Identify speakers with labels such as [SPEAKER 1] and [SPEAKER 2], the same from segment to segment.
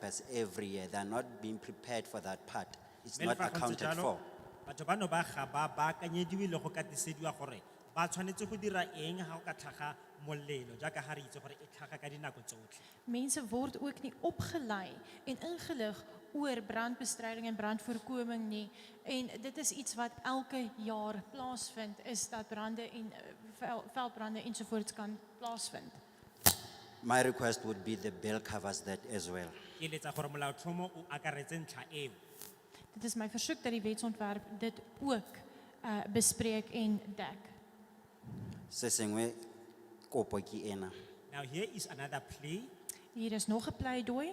[SPEAKER 1] papers every year. They're not being prepared for that part. It's
[SPEAKER 2] Mme le
[SPEAKER 1] not
[SPEAKER 2] fa go ntse
[SPEAKER 1] accounted
[SPEAKER 2] jalo,
[SPEAKER 1] for.
[SPEAKER 2] Batho bano ba ga ba baakanyediwe le go katisediwa gore ba tshwanetse go dira eng ha go ka tlhaga molelo jaaka ha re itse gore e tlhaga ka dinako tsotlhe.
[SPEAKER 3] Mensen worden ook niet opgeleid en ingelig oor brandbestrijding en brandvoorkoming nie. En dit is iets wat elke jaar plaatsvindt, is dat branden en eh, vel- veldbranden enzovoorts kan plaatsvinden.
[SPEAKER 1] My request would be the bill covers that as well.
[SPEAKER 2] Ke eletsa gore molaotlhomo o akaretse ntlha eo.
[SPEAKER 3] Dit is mijn verzoek dat die wetsontwerp dit ook eh bespreek en dek.
[SPEAKER 1] Se sengwe kopo ke ena.
[SPEAKER 2] Now here is another plea.
[SPEAKER 3] Hier is nog een pleidooi.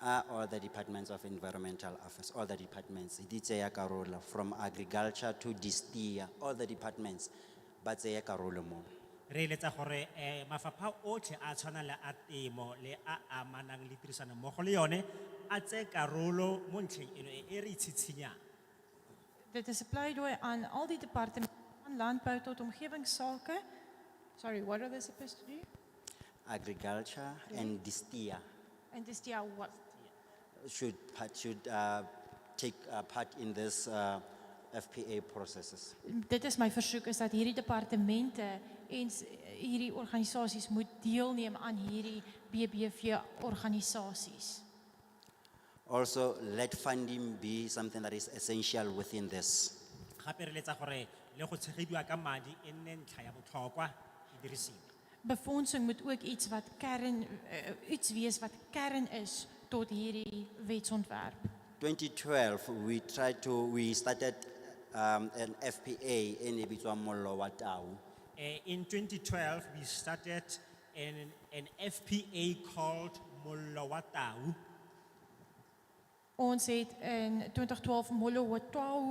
[SPEAKER 1] Are all the departments of environmental affairs, all the departments, di tseya karolo from agriculture to distia, all the departments, ba tseya karolo mo.
[SPEAKER 2] Re eletsa gore eh mafapha otlhe a tshwana le a temo le a amanang le tirisano mmogo le yone a tse karolo mo ntlheng eno e e re itshitshinyang.
[SPEAKER 3] Dit is een pleidooi aan al die departementen van landbouw tot omgevingszaken. Sorry, what are they supposed to do?
[SPEAKER 1] Agriculture and distia
[SPEAKER 3] And this yeah, what?
[SPEAKER 1] should, part- should uh, take uh, part in this uh, FPA processes.
[SPEAKER 3] Dit is my versoek is dat hierdie departemente en s- hierdie organisasies moet deelneem aan hierdie BBV organisasies.
[SPEAKER 1] Also, let funding be something that is essential within this.
[SPEAKER 2] Gape re eletsa gore le go tshegediwa ka madi e nne ntlha ya botlhokwa e dirisiwe.
[SPEAKER 3] Befondsing moet ook iets wat kern eh, iets wees wat kern is tot hierdie wetsontwerp.
[SPEAKER 1] 2012, we tried to, we started um, an FPA in Ibizwa Molo Watau.
[SPEAKER 2] Eh, in 2012, we started an, an FPA called Molowatau.
[SPEAKER 3] Ons het in 2012 Molowotau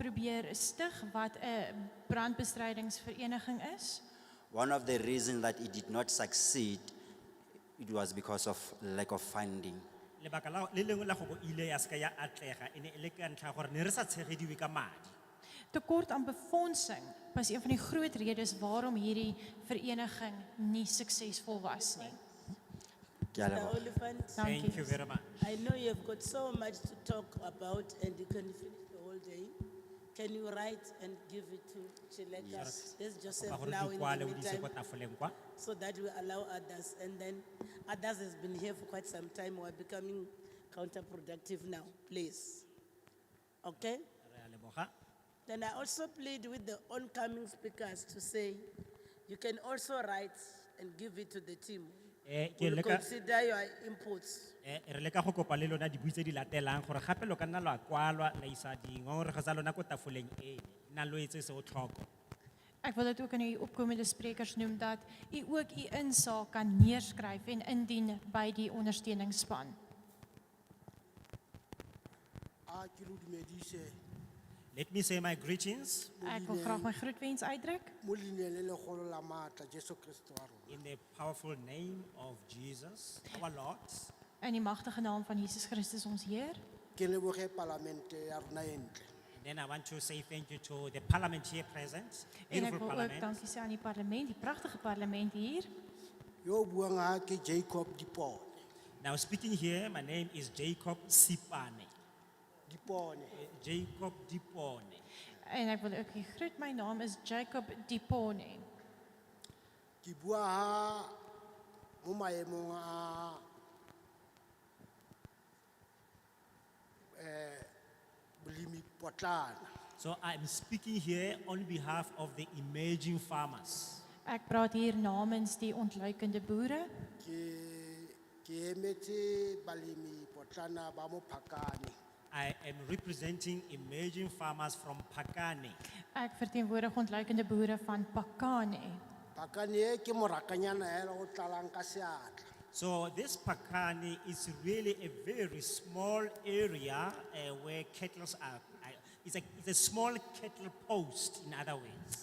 [SPEAKER 3] probeer stig wat 'n brandbestrydingsvereniging is.
[SPEAKER 1] One of the reasons that it did not succeed, it was because of lack of funding.
[SPEAKER 2] Lebaka la, le lengwe la go bo ile ya seka ya atlega, e ne e le ka ntlha ya gore ne re sa tshegediwe ka madi.
[SPEAKER 3] Tekort aan befondsing was een van die groot redes waarom hierdie vereniging nie suksesvol was nie.
[SPEAKER 1] Ke a
[SPEAKER 4] The
[SPEAKER 1] leboha.
[SPEAKER 4] Olifant,
[SPEAKER 3] Dankie.
[SPEAKER 2] Thank you very much.
[SPEAKER 4] I know you have got so much to talk about and you can finish the whole day. Can you write and give it to Chileka?
[SPEAKER 2] Yes.
[SPEAKER 4] There's
[SPEAKER 2] Ba
[SPEAKER 4] Joseph
[SPEAKER 2] gore
[SPEAKER 4] now
[SPEAKER 2] di
[SPEAKER 4] in
[SPEAKER 2] kwale
[SPEAKER 4] the
[SPEAKER 2] o di ise
[SPEAKER 4] meantime,
[SPEAKER 2] kwa tafoleng kwa.
[SPEAKER 4] so that we allow others. And then others has been here for quite some time, we're becoming counterproductive now, please. Okay?
[SPEAKER 2] Re a leboga.
[SPEAKER 4] Then I also plead with the oncoming speakers to say, you can also write and give it to the team.
[SPEAKER 2] Eh, ke
[SPEAKER 4] We'll
[SPEAKER 2] leka-
[SPEAKER 4] consider your inputs.
[SPEAKER 2] Eh, re leka go kopa le lona dibui tse di latelang gore gape lo ka nna lo a kwalwa la isa dingongorego tsa lona ko tafoleng e nna lo etse se o tlhoko
[SPEAKER 3] Ek wil dit ook aan die opkomende sprekers noem dat u ook u insaag kan neerskryf en indien by die ondersteuningsspan.
[SPEAKER 5] a ke lo dumedise
[SPEAKER 2] let me say my greetings
[SPEAKER 3] Ek wil graag my groetwens uitdruk
[SPEAKER 5] mo leineng le legolo la maatla jesu kriste wa rona
[SPEAKER 2] in the powerful name of jesus our lord
[SPEAKER 3] in die magtige naam van Jesus Christus ons Heer.
[SPEAKER 5] ke leboge palamente ya rona e ntle
[SPEAKER 2] Then I want to say thank you to the parliament here present,
[SPEAKER 3] En ek
[SPEAKER 2] beautiful
[SPEAKER 3] wil ook
[SPEAKER 2] parliament.
[SPEAKER 3] dankie sê aan die parlement, die pragtige parlement hier.
[SPEAKER 5] yo o buang ga ke jacob dipone
[SPEAKER 2] Now speaking here, my name is Jacob Sipane,
[SPEAKER 5] dipone
[SPEAKER 2] eh, Jacob Dipone.
[SPEAKER 3] En ek wil ook u groet. My naam is Jacob Dipone.
[SPEAKER 5] ke bua ha mo maemong a um bolemi potlana
[SPEAKER 2] So I'm speaking here on behalf of the emerging farmers.
[SPEAKER 3] Ek praat hier namens die ontluikende boere.
[SPEAKER 5] ke ke emetse balemi potlana ba mophakane
[SPEAKER 2] I am representing emerging farmers from Pakane.
[SPEAKER 3] Ek verteenwoordig ontluikende boere van Pakane.
[SPEAKER 5] phakane e ke morakanyana hela o tlalang ka seatla
[SPEAKER 2] So this Pakane is really a very small area eh, where cattle are, I- it's a, it's a small cattle post in other ways.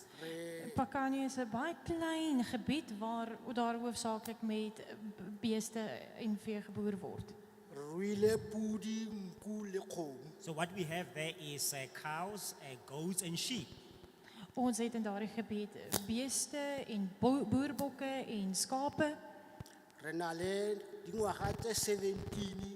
[SPEAKER 3] Pakane is 'n baie klein gebied waar daar hoofsaaklik met beeste en vee geboer word.
[SPEAKER 5] Re ruile pudi nku le kgomo
[SPEAKER 2] So what we have there is uh, cows, uh, goats and sheep.
[SPEAKER 3] Ons het in daardie gebied beeste en bo- boerbokke en skape.
[SPEAKER 5] re na le dingwaga tse seventeen